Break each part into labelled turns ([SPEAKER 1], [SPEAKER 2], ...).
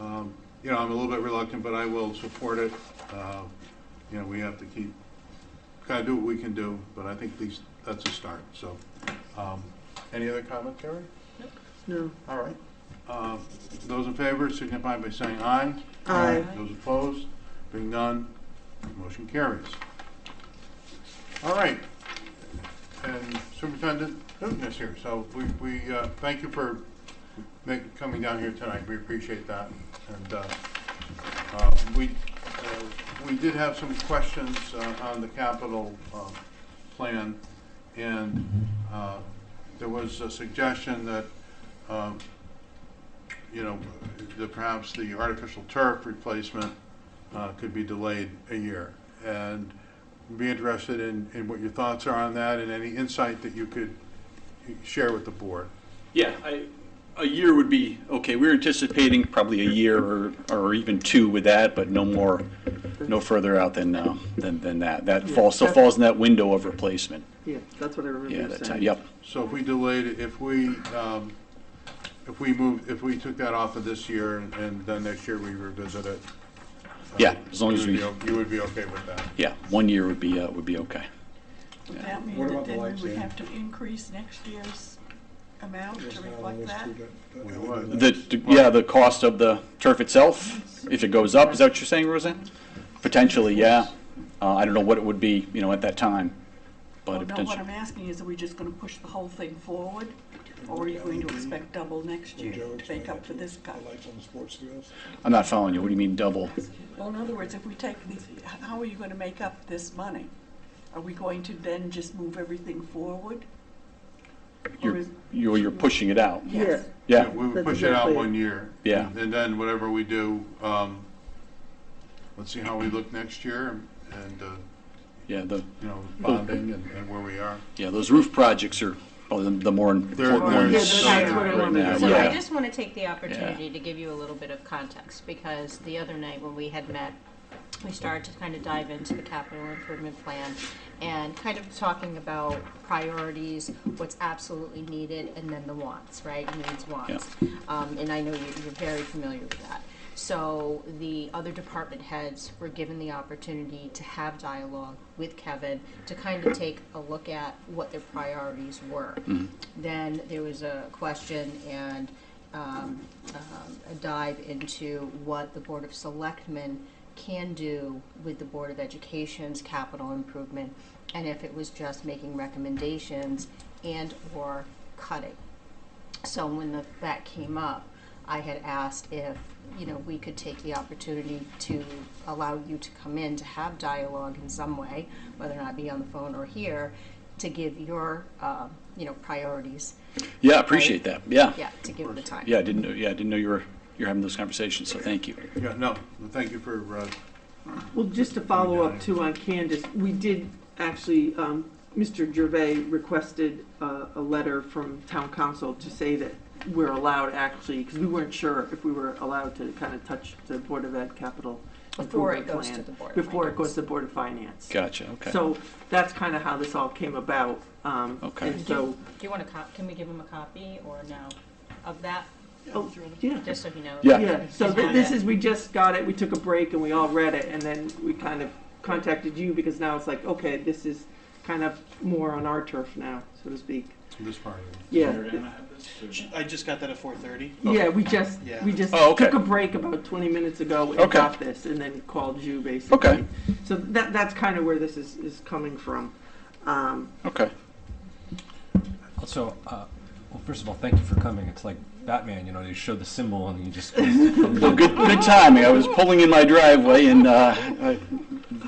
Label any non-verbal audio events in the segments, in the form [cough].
[SPEAKER 1] Um, You know, I'm a little bit reluctant, but I will support it. Uh, You know, we have to keep, gotta do what we can do, but I think these, that's a start, so. um, Any other comment, Carrie?
[SPEAKER 2] No.
[SPEAKER 1] All right. Uh, Those in favor signify by saying aye.
[SPEAKER 2] Aye.
[SPEAKER 1] Those opposed, being none, motion carries. All right. And Superintendent Newton is here, so we, we uh, thank you for making, coming down here tonight. We appreciate that. And uh, uh, we, uh, we did have some questions uh, on the capital uh, plan, and uh, there was a suggestion that um, you know, that perhaps the artificial turf replacement uh, could be delayed a year. And be interested in, in what your thoughts are on that and any insight that you could share with the board.
[SPEAKER 3] Yeah, I, a year would be, okay, we're anticipating probably a year or, or even two with that, but no more, no further out than, uh, than, than that. That falls, still falls in that window of replacement.
[SPEAKER 2] Yeah, that's what I remember
[SPEAKER 3] Yeah,
[SPEAKER 2] you
[SPEAKER 3] that time,
[SPEAKER 2] saying.
[SPEAKER 3] yep.
[SPEAKER 1] So if we delayed, it, if we, um, if we moved, if we took that off of this year and- and then next year we revisit it. uh,
[SPEAKER 3] Yeah, as long as
[SPEAKER 1] you
[SPEAKER 3] we-
[SPEAKER 1] would be o- You would be okay with that?
[SPEAKER 3] Yeah, one year would be, uh, would be okay.
[SPEAKER 4] Would that mean
[SPEAKER 5] What
[SPEAKER 4] that
[SPEAKER 5] about the
[SPEAKER 4] then
[SPEAKER 5] lights,
[SPEAKER 4] we would
[SPEAKER 5] Dan?
[SPEAKER 4] have to increase next year's amount
[SPEAKER 5] Yes,
[SPEAKER 4] to
[SPEAKER 5] now
[SPEAKER 4] reflect
[SPEAKER 5] on this
[SPEAKER 4] that?
[SPEAKER 5] we got the
[SPEAKER 1] We
[SPEAKER 5] LED
[SPEAKER 1] would.
[SPEAKER 5] lights.
[SPEAKER 3] The, the- yeah, the cost of the turf itself, if it goes up, is that what you're saying, Roseanne? Potentially, yeah. Uh, I don't know what it would be, you know, at that time, but
[SPEAKER 4] Well,
[SPEAKER 3] it
[SPEAKER 4] no, what
[SPEAKER 3] potentially,
[SPEAKER 4] I'm asking is, are we just gonna push the whole thing forward? Or are you going to expect double next year
[SPEAKER 5] Joe
[SPEAKER 4] to make up for
[SPEAKER 5] explained
[SPEAKER 4] this
[SPEAKER 5] that
[SPEAKER 4] cut?
[SPEAKER 5] The lights on the sports fields.
[SPEAKER 3] I'm not following you. What do you mean double?
[SPEAKER 4] Well, in other words, if we take these, how are you gonna make up this money? Are we going to then just move everything forward? Or
[SPEAKER 3] You're,
[SPEAKER 4] is,
[SPEAKER 3] you're you're pushing it out.
[SPEAKER 4] yes,
[SPEAKER 3] Yeah.
[SPEAKER 1] We would
[SPEAKER 2] That's
[SPEAKER 1] push it out
[SPEAKER 2] exactly it.
[SPEAKER 1] one year.
[SPEAKER 3] Yeah.
[SPEAKER 1] And- And then whatever we do, um, let's see how we look next year and, uh,
[SPEAKER 3] Yeah, the,
[SPEAKER 1] you know, bonding and and where we are.
[SPEAKER 3] yeah, those roof projects are probably the- the more important
[SPEAKER 1] they're
[SPEAKER 3] ones.
[SPEAKER 2] Yeah, that's
[SPEAKER 1] Sorry.
[SPEAKER 2] what I
[SPEAKER 3] Right
[SPEAKER 2] wanted
[SPEAKER 3] now,
[SPEAKER 2] to
[SPEAKER 6] So I
[SPEAKER 3] yeah.
[SPEAKER 2] say.
[SPEAKER 6] just want to take the opportunity to give you a little bit of context, because the other night when we had met, we started to kind of dive into the capital improvement plan and kind of talking about priorities, what's absolutely needed, and then the wants, right? Needs, wants. Um, and I know you- you're very familiar with that. So the other department heads were given the opportunity to have dialogue with Kevin to kind of take a look at what their priorities were. Then there was a question and um, um, a dive into what the Board of Selectmen can do with the Board of Education's capital improvement and if it was just making recommendations and/or cutting. So when the, that came up, I had asked if, you know, we could take the opportunity to allow you to come in to have dialogue in some way, whether or not be on the phone or here, to give your, um, you know, priorities.
[SPEAKER 3] Yeah, I appreciate that. Yeah.
[SPEAKER 6] Yeah, to give the time.
[SPEAKER 3] Yeah, I didn't know, yeah, I didn't know you were, you're having those conversations, so thank you.
[SPEAKER 1] Yeah, no, thank you for, uh,
[SPEAKER 2] Well, just to follow up too on Candace, we did actually, um, Mr. Gervais requested a, a letter from town council to say that we're allowed actually, because we weren't sure if we were allowed to kind of touch the Board of Ed capital
[SPEAKER 6] Before it
[SPEAKER 2] improvement
[SPEAKER 6] goes to
[SPEAKER 2] plan,
[SPEAKER 6] the Board of
[SPEAKER 2] Before it
[SPEAKER 6] Finance.
[SPEAKER 2] goes to the Board of Finance.
[SPEAKER 3] Gotcha, okay.
[SPEAKER 2] So that's kind of how this all came about. um,
[SPEAKER 3] Okay.
[SPEAKER 2] And
[SPEAKER 6] Do you,
[SPEAKER 2] so,
[SPEAKER 6] do you want to, can we give him a copy or no of that,
[SPEAKER 2] oh, yeah.
[SPEAKER 6] just so he knows?
[SPEAKER 3] Yeah.
[SPEAKER 2] Yeah, so
[SPEAKER 6] He's
[SPEAKER 2] thi-
[SPEAKER 6] got
[SPEAKER 2] this
[SPEAKER 6] it.
[SPEAKER 2] is, we just got it, we took a break and we all read it, and then we kind of contacted you because now it's like, okay, this is kind of more on our turf now, so to speak.
[SPEAKER 1] this part. of it.
[SPEAKER 2] Yeah,
[SPEAKER 7] I just got that at four thirty.
[SPEAKER 2] yeah, we just,
[SPEAKER 7] Yeah.
[SPEAKER 2] we just
[SPEAKER 3] Oh, okay.
[SPEAKER 2] took a break about twenty minutes ago and
[SPEAKER 3] Okay.
[SPEAKER 2] got this, and then called you basically.
[SPEAKER 3] Okay.
[SPEAKER 2] So that, that's kind of where this is, is coming from. Um,
[SPEAKER 3] Okay.
[SPEAKER 8] Also, uh, well, first of all, thank you for coming. It's like Batman, you know, you show the symbol and
[SPEAKER 3] [laughs]
[SPEAKER 8] you just. Well,
[SPEAKER 3] Good, good timing. I was pulling in my driveway and, uh, I-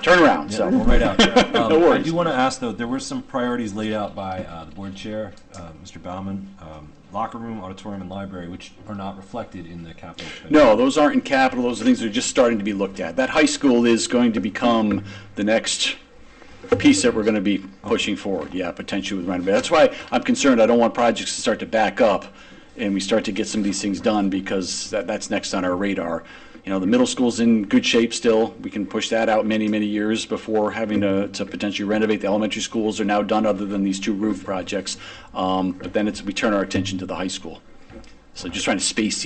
[SPEAKER 3] turn around,
[SPEAKER 8] Yeah,
[SPEAKER 3] so.
[SPEAKER 8] we'll
[SPEAKER 3] [laughs]
[SPEAKER 8] right out. Um,
[SPEAKER 3] No worries.
[SPEAKER 8] I do want to ask though. There were some priorities laid out by uh, the board chair, uh, Mr. Bauman, um, locker room, auditorium, and library, which are not reflected in the capital. plan.
[SPEAKER 3] No, those aren't in capital. Those are things that are just starting to be looked at. That high school is going to become the next piece that we're going to be pushing forward. Yeah, potentially with renovation. That's why I'm concerned. I don't want projects to start to back up and we start to get some of these things done because that, that's next on our radar. You know, the middle school's in good shape still. We can push that out many, many years before having to, to potentially renovate. The elementary schools are now done other than these two roof projects. Um, but then it's, we turn our attention to the high school. So just trying to space